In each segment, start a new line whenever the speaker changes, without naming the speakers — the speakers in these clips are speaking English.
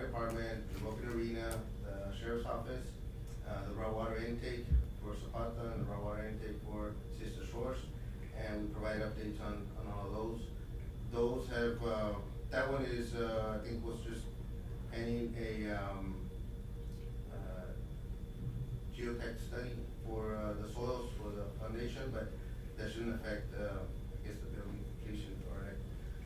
Department, the Boca Arena, the Sheriff's Office, uh, the raw water intake for Zapata and the raw water intake for Sister Shores. And we provide updates on, on all those. Those have, uh, that one is, uh, I think was just any, a, um, uh, geotech study for, uh, the soils for the foundation, but that shouldn't affect, uh, I guess the building completion or like.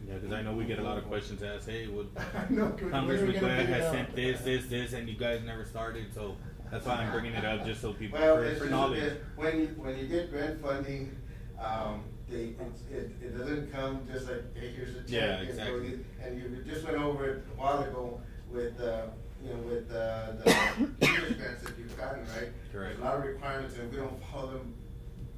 Yeah, because I know we get a lot of questions asked. Hey, would
I know, 'cause when are we
Congressman
gonna
Glad
figure it
has
out?
sent this, this, this, and you guys never started, so that's why I'm bringing it up just so people
Well,
for,
it's
for
just-
knowledge.
it- when you, when you get grant funding, um, they, it's, it, it doesn't come just like, hey, here's a check.
Yeah,
and so
exactly.
you- And you just went over it a while ago with, uh, you know, with, uh, the teachers grants that you've gotten, right? There's
Correct.
a lot of requirements and we don't follow them,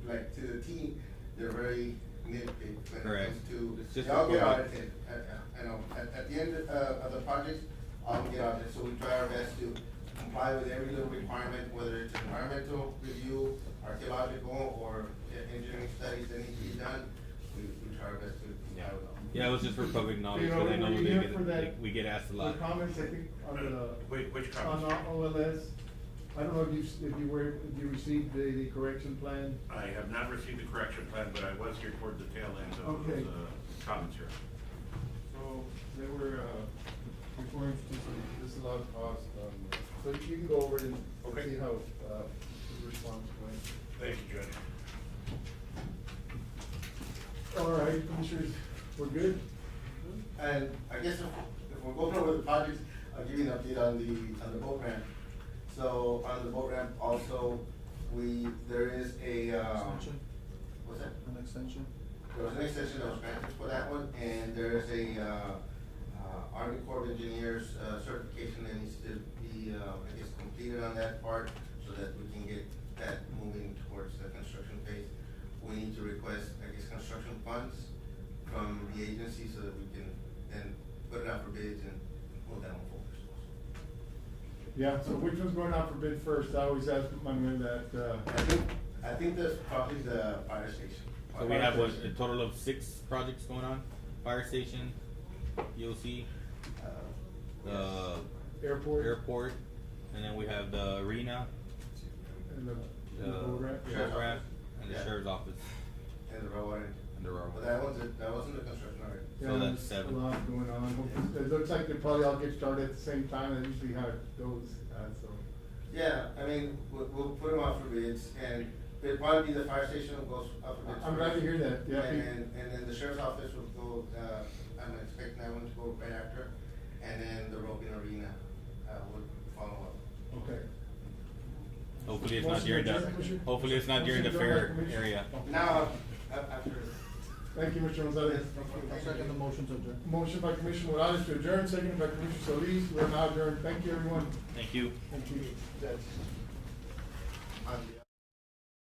like, to the T, they're very nitpicky when it
Correct.
comes to,
It's just
they all
a
get
format.
audited, at, at, you know, at, at the end of, uh, of the project, all get audited, so we try our best to comply with every little requirement, whether it's environmental review, archaeological, or uh, engineering studies that need to be done, we, we try our best to comply with them.
Yeah, it was just for public knowledge,
know,
because I know
we're
they
here
get,
for that-
they- we get asked a
The
lot.
comments, I think, on the,
Which, which
on
comments?
our OLS, I don't know if you, s- if you were, if you received the, the correction plan.
I have not received the correction plan, but I was here toward the tail end of
Okay.
the comments here.
So they were, uh, referring to some disallowed cost, um, so you can go over it and
Okay.
see how, uh, the response went.
Thank you, Judge.
All right, commissioners, we're good?
And I guess if, if we're going over the projects, I'll give you an update on the, on the boat ramp. So on the boat ramp also, we, there is a, um,
Extension.
what's that?
An extension?
There was an extension that was granted for that one, and there is a, uh, uh, Army Corps of Engineers uh, certification that needs to be, uh, I guess, completed on that part, so that we can get that moving towards the construction phase. We need to request, I guess, construction funds from the agency so that we can then put it out for bids and move that one forward.
Yeah, so which one's going out for bid first? I always ask my men that, uh,
I think, I think that's probably the fire station. Uh,
So we have what, a total of six projects going on, fire station, EOC,
Uh,
the
airport.
airport, and then we have the arena,
And the,
the
and the boat ramp.
sheriff's rep, and the
Yeah.
sheriff's office,
And the raw water.
and the railroad.
But that wasn't, that wasn't the construction already.
Yeah,
So
there's
that's seven.
A lot going on. Hope- It looks like they probably all get started at the same time, and usually how it goes, uh, so.
Yeah, I mean, we'll, we'll put them out for bids and it'd probably be the fire station that goes up for bids.
I'm glad to
first.
hear that, yeah.
And then, and then the sheriff's office would go, uh, I'm expecting that one to go right after. And then the roping arena, uh, would follow up.
Okay.
Hopefully it's not
Motion
during
to
the,
adjourn, Commissioner?
hopefully it's not during the
Motion to adjourn,
fair
Commissioner?
area.
Now, up after.
Thank you, Mr. Gonzalez.
I second the motion to adjourn.
Motion by Commissioner Morales to adjourn, seconded by Commissioner Solis. We're now adjourned. Thank you, everyone.
Thank you.
Thank you.
on the-